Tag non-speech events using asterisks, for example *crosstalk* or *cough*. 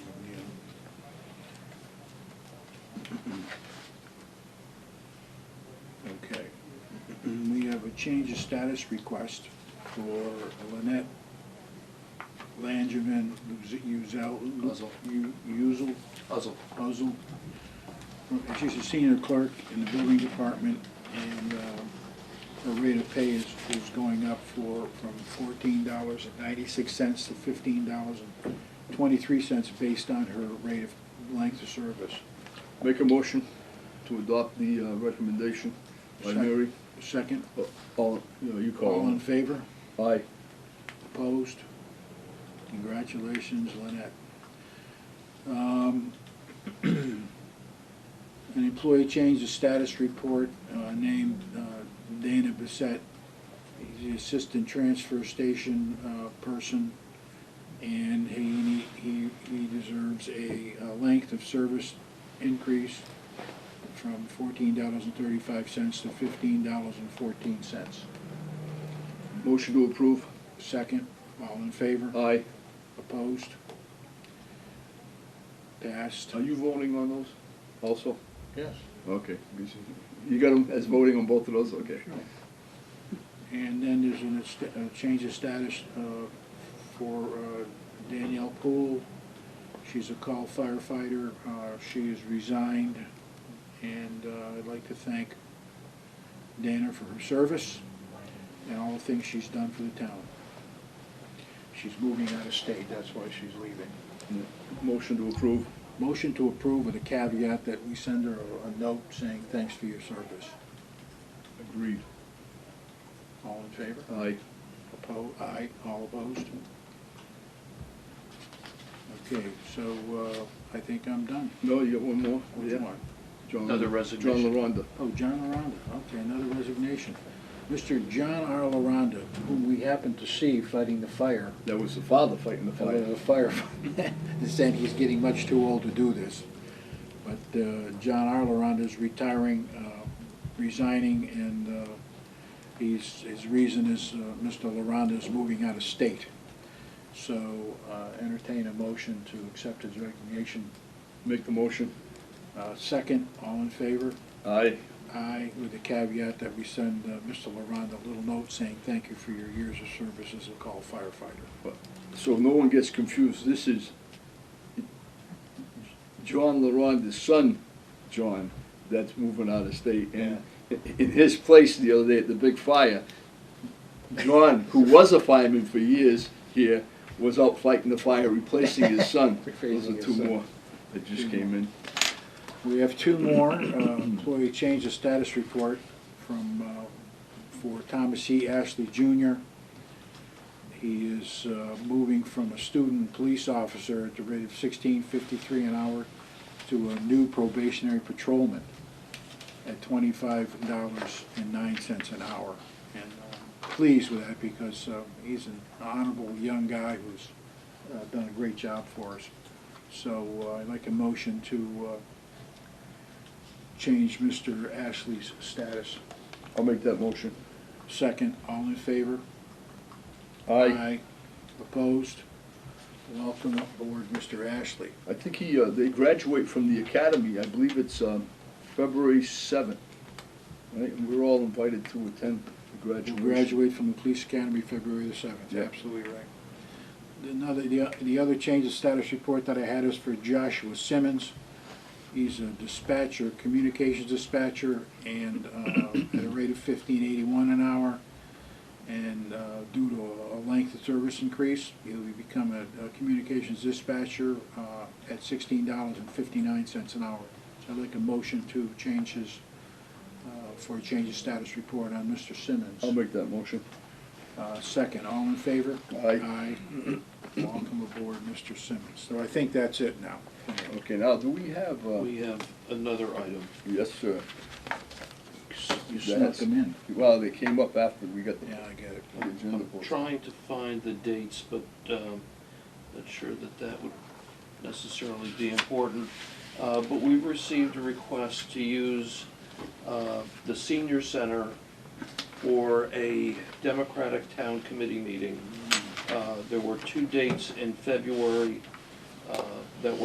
Okay. We have a change of status request for Lynette Langevin Uzel. Uzel. Uzel, Puzzle. Uzel. She's a senior clerk in the building department, and uh, her rate of pay is, is going up for, from fourteen dollars and ninety-six cents to fifteen dollars and twenty-three cents based on her rate of length of service. Make a motion to adopt the uh, recommendation by Second. Mary. Second, Uh, All, you know, you all call in it. favor? Aye. Opposed? Congratulations, Lynette. Um, *clears throat* An employee change of status report uh, named uh, Dana Bissett. He's the assistant transfer station uh, person, and he, he, he deserves a uh, length of service increase from fourteen dollars and thirty-five cents to fifteen dollars and fourteen cents. Motion to approve. Second, all in favor? Aye. Opposed? Passed. Are you voting on those also? Yes. Okay. You got them as voting on both of those? Okay. And then there's an est- a change of status uh, for uh, Danielle Poole. She's a call firefighter. Uh, She has resigned, and uh, I'd like to thank Dana for her service and all the things she's done for the town. She's moving out of state, that's why she's leaving. Motion to approve. Motion to approve with a caveat that we send her a- a note saying thanks for your service. Agreed. All in favor? Aye. Opposed, aye, all opposed? Okay, so uh, I think I'm done. No, you got one more? Which Yeah. one? John- Another resignation. John LaRonda. Oh, John LaRonda, okay, another resignation. Mr. John R. LaRonda, whom we happened to see fighting the fire, That was the father fighting the uh, fire. the firefighter, *laughs* saying he's getting much too old to do this. But uh, John R. LaRonda is retiring, uh, resigning, and uh, he's, his reason is uh, Mr. LaRonda is moving out of state. So uh, entertain a motion to accept his resignation. Make the motion. Uh, Second, all in favor? Aye. Aye, with the caveat that we send uh, Mr. LaRonda a little note saying thank you for your years of service as a call firefighter. So no one gets confused, this is John LaRonda's son, John, that's moving out of state. And in his place the other day at the big fire, John, who was a fireman for years here, was out fighting the fire, replacing his son. Those *laughs* Replacing are his two son. more that just came in. We have two more, uh, employee change of status report from, uh, for Thomas E. Ashley Jr. He is uh, moving from a student police officer at the rate of sixteen fifty-three an hour to a new probationary patrolman at twenty-five dollars and nine cents an hour. And I'm pleased with that because uh, he's an honorable young guy who's uh, done a great job for us. So uh, I'd like a motion to uh, change Mr. Ashley's status. I'll make that motion. Second, all in favor? Aye. Opposed? Welcome aboard, Mr. Ashley. I think he, uh, they graduate from the academy, I believe it's, um, February seventh. Right, and we're all invited to attend the He'll graduation. graduate from the Police Academy February the seventh. Yeah. Absolutely right. Another, the, the other change of status report that I had is for Joshua Simmons. He's a dispatcher, communications dispatcher, and, uh, at a rate of fifteen eighty-one an hour. And, uh, due to a- a length of service increase, he'll become a, a communications dispatcher, uh, at sixteen dollars and fifty-nine cents an hour. So I'd like a motion to change his, uh, for a change of status report on Mr. Simmons. I'll make that motion. Uh, Second, all in favor? Aye. Aye. *clears throat* Welcome aboard, Mr. Simmons. So I think that's it now. Okay, now, do we have, uh, We have another item. yes, sir. You snuck them in. Well, they came up after we got the, Yeah, I get it. the agenda I'm board. trying to find the dates, but um, not sure that that would necessarily be important. Uh, But we received a request to use uh, the senior center for a Democratic Town Committee meeting. Uh, There were two dates in February. Uh,